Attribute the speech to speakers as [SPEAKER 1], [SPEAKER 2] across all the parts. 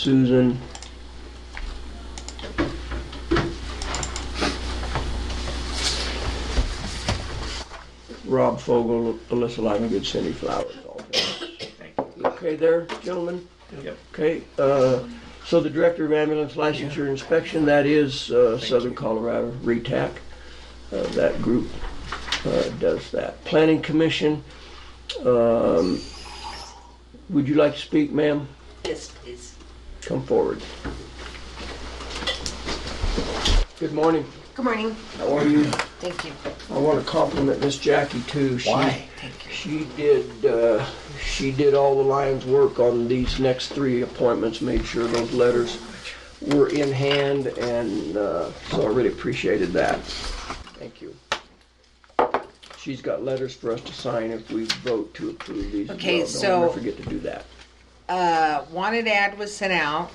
[SPEAKER 1] Susan. Rob Fogel, Alyssa Livengood, Cindy Flowers. all three. Okay there, gentlemen?
[SPEAKER 2] Yep.
[SPEAKER 1] Okay, uh, so the Director of Ambulance Licensure Inspection, that is uh, Southern Colorado, RETAC. Uh, That group uh, does that. Planning Commission, um, would you like to speak, ma'am?
[SPEAKER 3] Yes, please.
[SPEAKER 1] Come forward. Good morning.
[SPEAKER 3] Good morning.
[SPEAKER 1] How are you?
[SPEAKER 3] Thank you.
[SPEAKER 1] I want to compliment Miss Jackie too. She,
[SPEAKER 2] Why?
[SPEAKER 1] She did. Uh, she did all the lion's work on these next three appointments. Made sure those letters were in hand, and uh, so I really appreciated that. Thank you. She's got letters for us to sign if we vote to approve these. as
[SPEAKER 3] Okay,
[SPEAKER 1] well. Don't
[SPEAKER 3] so-
[SPEAKER 1] ever forget to do that.
[SPEAKER 3] Uh, wanted ad was sent out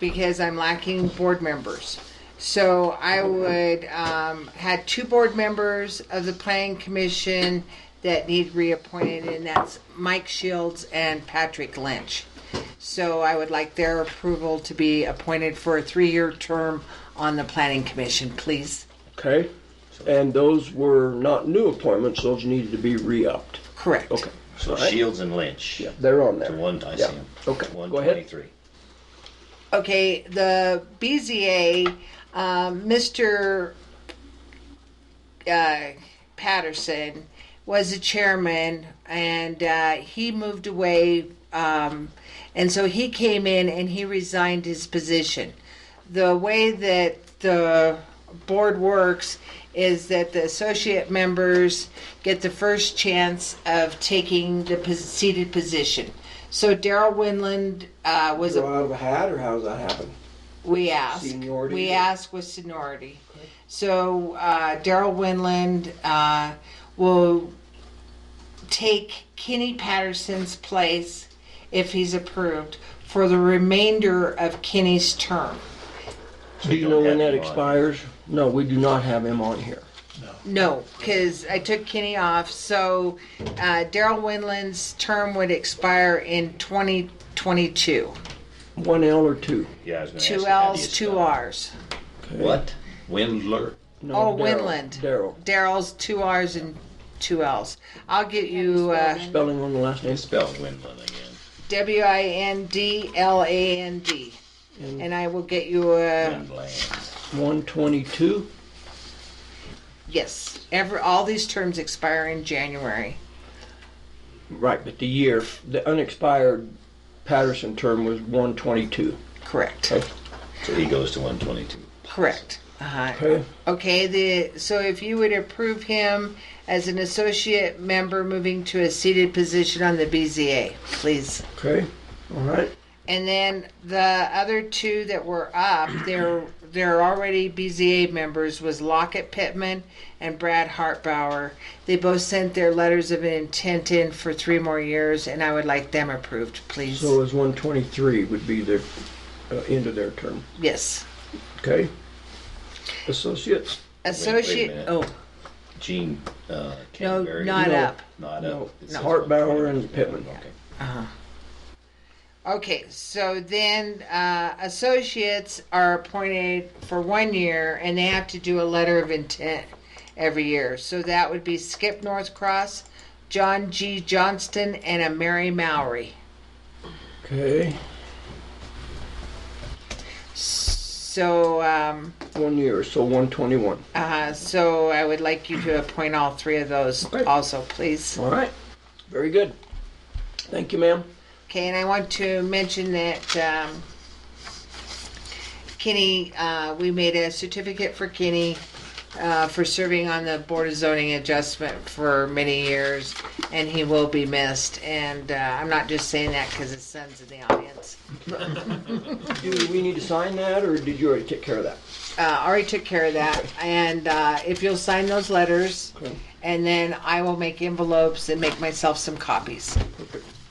[SPEAKER 3] because I'm lacking board members. So I would, um, had two board members of the planning commission that need reappointed, and that's Mike Shields and Patrick Lynch. So I would like their approval to be appointed for a three-year term on the planning commission, please.
[SPEAKER 1] Okay. And those were not new appointments. Those needed to be re-upped.
[SPEAKER 3] Correct.
[SPEAKER 1] Okay.
[SPEAKER 2] So
[SPEAKER 1] All right.
[SPEAKER 2] Shields and Lynch.
[SPEAKER 1] Yeah, they're on there.
[SPEAKER 2] The one I see
[SPEAKER 1] Yeah.
[SPEAKER 2] 'em.
[SPEAKER 1] Okay.
[SPEAKER 2] One
[SPEAKER 1] Go ahead.
[SPEAKER 2] twenty-three.
[SPEAKER 3] Okay, the BZA, um, Mr. Uh, Patterson was the chairman, and uh, he moved away, um, and so he came in and he resigned his position. The way that the board works is that the associate members get the first chance of taking the pos- seated position. So Daryl Winland uh, was a
[SPEAKER 1] Throw out of a hat, or how does that happen?
[SPEAKER 3] we ask.
[SPEAKER 1] Seniority.
[SPEAKER 3] We ask with seniority. So uh, Daryl Winland uh, will take Kenny Patterson's place if he's approved for the remainder of Kenny's term.
[SPEAKER 1] Do you
[SPEAKER 2] don't
[SPEAKER 1] know when
[SPEAKER 2] have
[SPEAKER 1] that
[SPEAKER 2] him on.
[SPEAKER 1] expires? No, we do not have him on here.
[SPEAKER 3] No, because I took Kenny off. So uh, Daryl Winland's term would expire in 2022.
[SPEAKER 1] One L or two?
[SPEAKER 2] Yeah, I was gonna ask you,
[SPEAKER 3] Two
[SPEAKER 2] how do you
[SPEAKER 3] L's, two
[SPEAKER 2] spell it?
[SPEAKER 3] R's.
[SPEAKER 1] Okay.
[SPEAKER 2] What? Windler.
[SPEAKER 1] No,
[SPEAKER 3] Oh,
[SPEAKER 1] Daryl.
[SPEAKER 3] Winland.
[SPEAKER 1] Daryl.
[SPEAKER 3] Daryl's two R's and two L's. I'll get you. Uh,
[SPEAKER 1] Spelling on the last name?
[SPEAKER 2] It's spelled Windland again.
[SPEAKER 3] W I N D L A N D. And I will get you a
[SPEAKER 2] Windland.
[SPEAKER 1] One twenty-two?
[SPEAKER 3] yes. Every all these terms expire in January.
[SPEAKER 1] Right, but the year, the unexpired Patterson term was one twenty-two.
[SPEAKER 3] Correct.
[SPEAKER 1] Okay.
[SPEAKER 2] So he goes to one twenty-two.
[SPEAKER 3] Correct. Uh-huh.
[SPEAKER 1] Okay.
[SPEAKER 3] Okay. The so if you would approve him as an associate member moving to a seated position on the BZA, please.
[SPEAKER 1] Okay, all right.
[SPEAKER 3] And then the other two that were up, they're they're already BZA members was Lockett Pittman and Brad Hartbauer. They both sent their letters of intent in for three more years, and I would like them approved, please.
[SPEAKER 1] So it was one twenty-three would be their, uh, end of their term,
[SPEAKER 3] yes,
[SPEAKER 1] okay? Associates?
[SPEAKER 3] associate.
[SPEAKER 2] minute.
[SPEAKER 3] oh
[SPEAKER 2] Gene, uh,
[SPEAKER 3] no,
[SPEAKER 2] Canterbury.
[SPEAKER 3] not
[SPEAKER 1] No.
[SPEAKER 3] up.
[SPEAKER 2] Not
[SPEAKER 1] No.
[SPEAKER 2] up. It says
[SPEAKER 1] Hartbauer and
[SPEAKER 2] 122.
[SPEAKER 1] Pittman.
[SPEAKER 2] Okay.
[SPEAKER 3] Okay, so then uh, associates are appointed for one year, and they have to do a letter of intent every year. So that would be Skip Northcross, John G. Johnston, and a Mary Mowry.
[SPEAKER 1] Okay,
[SPEAKER 3] So, um,
[SPEAKER 1] one year, so one twenty-one.
[SPEAKER 3] uh, so I would like you to appoint all three of those
[SPEAKER 1] Okay.
[SPEAKER 3] also, please.
[SPEAKER 1] All right, very good. Thank you, ma'am.
[SPEAKER 3] Okay, and I want to mention that um, Kenny, uh, we made a certificate for Kenny uh, for serving on the Board of Zoning Adjustment for many years, and he will be missed. And uh, I'm not just saying that because his son's in the audience.
[SPEAKER 1] Do we need to sign that, or did you already take care of that?
[SPEAKER 3] Uh, Ari took care of that, and uh, if you'll sign those letters,
[SPEAKER 1] Okay.
[SPEAKER 3] and then I will make envelopes and make myself some copies.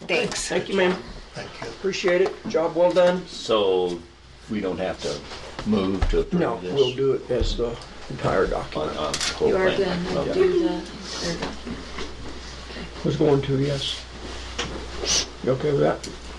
[SPEAKER 3] Thanks.
[SPEAKER 1] Thank you, ma'am. Thank you. Appreciate it. Job well done.
[SPEAKER 2] So we don't have to move to approve
[SPEAKER 1] No,
[SPEAKER 2] this?
[SPEAKER 1] we'll do it as the entire
[SPEAKER 2] On,
[SPEAKER 1] document.
[SPEAKER 2] on the whole
[SPEAKER 4] You are
[SPEAKER 2] thing?
[SPEAKER 4] gonna have to
[SPEAKER 2] Okay.
[SPEAKER 4] do the, there you go.
[SPEAKER 1] Was going to, yes. You okay with that?